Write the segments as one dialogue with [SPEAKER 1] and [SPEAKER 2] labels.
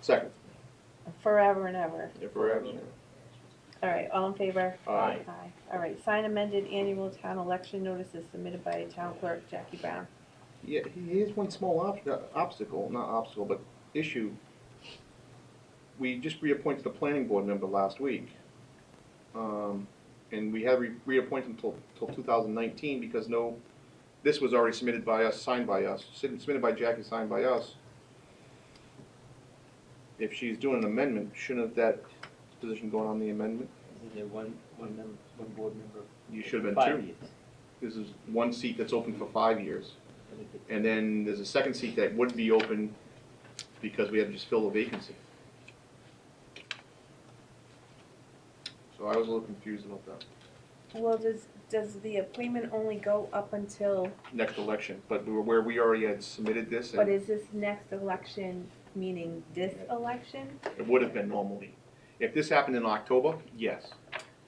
[SPEAKER 1] Second.
[SPEAKER 2] forever and ever.
[SPEAKER 1] Forever.
[SPEAKER 2] All right, all in favor?
[SPEAKER 1] Aye.
[SPEAKER 2] Aye. All right, sign amended annual town election notices submitted by town clerk Jackie Brown.
[SPEAKER 1] Yeah, he has one small ob- uh, obstacle, not obstacle, but issue. We just reappointed the planning board member last week. Um, and we had re- reappointed until, till two thousand nineteen because no, this was already submitted by us, signed by us, sit- submitted by Jackie, signed by us. If she's doing an amendment, shouldn't that position go on the amendment?
[SPEAKER 3] Isn't there one, one member, one board member?
[SPEAKER 1] You should have
[SPEAKER 3] Five
[SPEAKER 1] been two.
[SPEAKER 3] years.
[SPEAKER 1] This is one seat that's open for five years.
[SPEAKER 3] I think it-
[SPEAKER 1] And then there's a second seat that would be open because we had to just fill the vacancy. So I was a little confused about that,
[SPEAKER 2] Well, does, does the appointment only go up until,
[SPEAKER 1] next election, but we were where we already had submitted this
[SPEAKER 2] but
[SPEAKER 1] and
[SPEAKER 2] is this next election, meaning this election?
[SPEAKER 1] it would have been normally. If this happened in October, yes,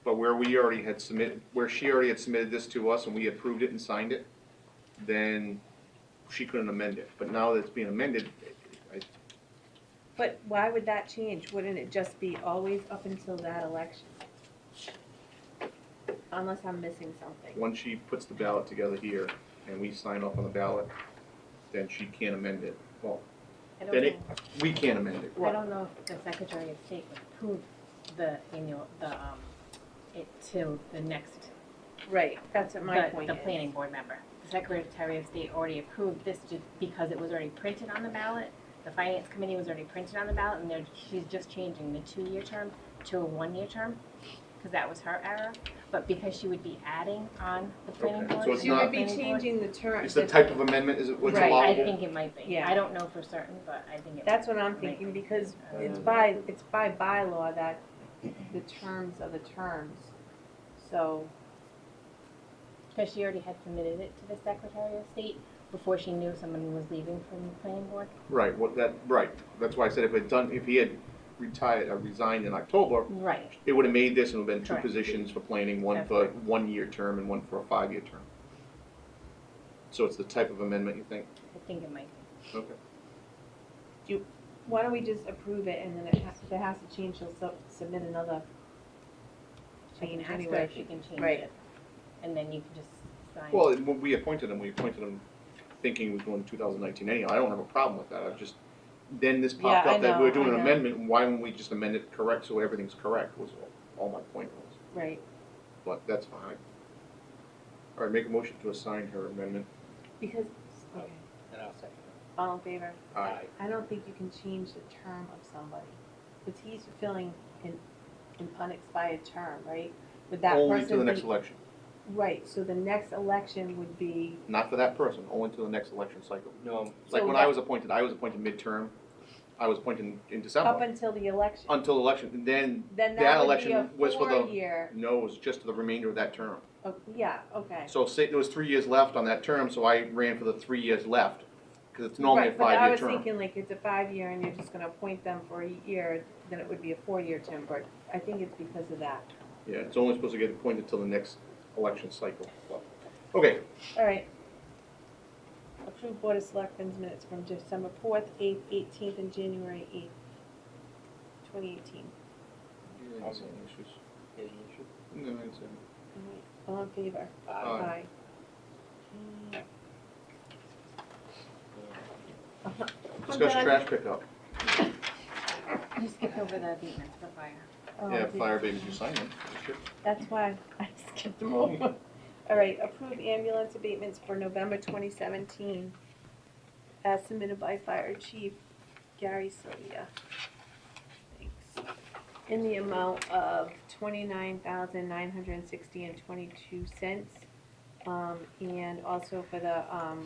[SPEAKER 1] but where we already had submitted, where she already had submitted this to us and we approved it and signed it, then she couldn't amend it, but now that it's being amended, I,
[SPEAKER 2] But why would that change? Wouldn't it just be always up until that election? Unless I'm missing something.
[SPEAKER 1] Once she puts the ballot together here and we sign off on the ballot, then she can't amend it. Well,
[SPEAKER 4] I don't
[SPEAKER 1] then it,
[SPEAKER 4] know,
[SPEAKER 1] we can't amend it.
[SPEAKER 4] I don't know if the Secretary of State would approve the annual, the, um, it to the next,
[SPEAKER 2] Right, that's what my
[SPEAKER 4] the,
[SPEAKER 2] point
[SPEAKER 4] the
[SPEAKER 2] is.
[SPEAKER 4] planning board member. The Secretary of State already approved this just because it was already printed on the ballot. The Finance Committee was already printed on the ballot, and they're, she's just changing the two-year term to a one-year term, because that was her error. But because she would be adding on the planning
[SPEAKER 1] Okay,
[SPEAKER 4] board.
[SPEAKER 1] so it's
[SPEAKER 2] You would
[SPEAKER 1] not-
[SPEAKER 2] be
[SPEAKER 4] planning board-
[SPEAKER 2] changing the term.
[SPEAKER 1] It's the type of amendment, is it what's
[SPEAKER 2] Right,
[SPEAKER 4] I
[SPEAKER 1] allowable?
[SPEAKER 4] think it might be.
[SPEAKER 2] Yeah.
[SPEAKER 4] I don't know for certain, but I think it.
[SPEAKER 2] That's what I'm thinking, because it's by, it's by bylaw that the terms are the terms. So,
[SPEAKER 4] Because she already had submitted it to the Secretary of State before she knew someone was leaving from the planning board.
[SPEAKER 1] Right, what that, right. That's why I said if it done, if he had retired, uh, resigned in October,
[SPEAKER 4] Right.
[SPEAKER 1] it would have made this and would have been two
[SPEAKER 4] Correct.
[SPEAKER 1] positions for planning, one for one-year term and one for a five-year term. So it's the type of amendment you think?
[SPEAKER 4] I think it might
[SPEAKER 1] Okay.
[SPEAKER 2] why don't we just approve it, and then it has, if it has to change, she'll sub- submit another
[SPEAKER 4] be. She
[SPEAKER 2] change
[SPEAKER 4] can ask her
[SPEAKER 2] anyway.
[SPEAKER 4] if she can change
[SPEAKER 2] Right.
[SPEAKER 4] it. And then you can just sign.
[SPEAKER 1] Well, it- when we appointed him, we appointed him thinking he was going to 2019 anyhow. I don't have a problem with that. I just, then this popped
[SPEAKER 2] Yeah, I
[SPEAKER 1] up that we
[SPEAKER 2] know,
[SPEAKER 1] we're doing
[SPEAKER 2] I
[SPEAKER 1] an
[SPEAKER 2] know.
[SPEAKER 1] amendment, and why wouldn't we just amend it correct so everything's correct was all, all my point was.
[SPEAKER 2] Right,
[SPEAKER 1] But that's fine. All right, make a motion to assign her amendment.
[SPEAKER 2] because, okay,
[SPEAKER 3] And I'll second
[SPEAKER 2] all in favor?
[SPEAKER 3] it.
[SPEAKER 1] Aye.
[SPEAKER 2] I don't think you can change the term of somebody, because he's fulfilling an, an unexpired term, right? Would that
[SPEAKER 1] Only to the
[SPEAKER 2] person
[SPEAKER 1] next
[SPEAKER 2] be,
[SPEAKER 1] election.
[SPEAKER 2] right, so the next election would be,
[SPEAKER 1] Not for that person, only to the next election cycle.
[SPEAKER 3] No,
[SPEAKER 1] It's Like
[SPEAKER 2] So
[SPEAKER 1] when I
[SPEAKER 2] that-
[SPEAKER 1] was appointed, I was appointed midterm. I was appointed in
[SPEAKER 2] up
[SPEAKER 1] December,
[SPEAKER 2] until the election.
[SPEAKER 1] until election. And then,
[SPEAKER 2] Then
[SPEAKER 1] That
[SPEAKER 2] that would
[SPEAKER 1] election
[SPEAKER 2] be a
[SPEAKER 1] was for the-
[SPEAKER 2] four-year,
[SPEAKER 1] no, it was just the remainder of that term.
[SPEAKER 2] oh, yeah, okay.
[SPEAKER 1] So say there was three years left on that term, so I ran for the three years left, because it's normally a five-year
[SPEAKER 2] Right, but I was
[SPEAKER 1] term.
[SPEAKER 2] thinking like it's a five-year and you're just gonna appoint them for a year, then it would be a four-year term, but I think it's because of that.
[SPEAKER 1] Yeah, it's only supposed to get appointed till the next election cycle. Okay,
[SPEAKER 2] All right. Approved Board of Selectmen's minutes from December fourth, eighth, eighteenth, and January eighth, twenty eighteen.
[SPEAKER 3] I'll second. any issue?
[SPEAKER 1] No, I didn't say
[SPEAKER 2] All in favor?
[SPEAKER 3] Aye.
[SPEAKER 1] Aye.
[SPEAKER 2] Aye.
[SPEAKER 1] that.
[SPEAKER 2] I'm
[SPEAKER 1] Discuss
[SPEAKER 2] done.
[SPEAKER 1] trash pickup.
[SPEAKER 4] it. You skipped over the abatements for fire.
[SPEAKER 2] Oh,
[SPEAKER 1] Yeah,
[SPEAKER 2] did-
[SPEAKER 1] fire babies, you sign them.
[SPEAKER 2] That's why I skipped them over. All right, approve ambulance abatements for November twenty seventeen, as submitted by Fire Chief Gary Sylvia. Thanks. In the amount of twenty-nine thousand nine hundred and sixty and twenty-two cents. Um, and also for the, um,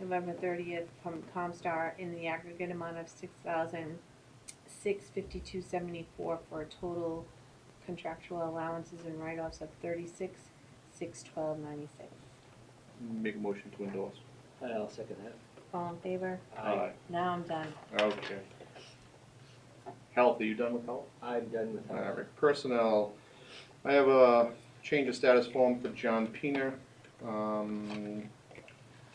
[SPEAKER 2] November thirtieth from Comstar in the aggregate amount of six thousand six fifty-two seventy-four for a total contractual allowances and write-offs of thirty-six, six twelve ninety-six.
[SPEAKER 1] Make a motion to endorse.
[SPEAKER 3] And I'll second
[SPEAKER 2] All in favor?
[SPEAKER 3] that. Aye.
[SPEAKER 2] Now I'm done.
[SPEAKER 1] Okay. Health, are you done with health?
[SPEAKER 3] I'm done with
[SPEAKER 1] All
[SPEAKER 3] that.
[SPEAKER 1] right, uh, personnel, I have a change of status form for John Peener. Um,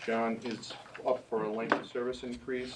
[SPEAKER 1] John is up for a length of service increase.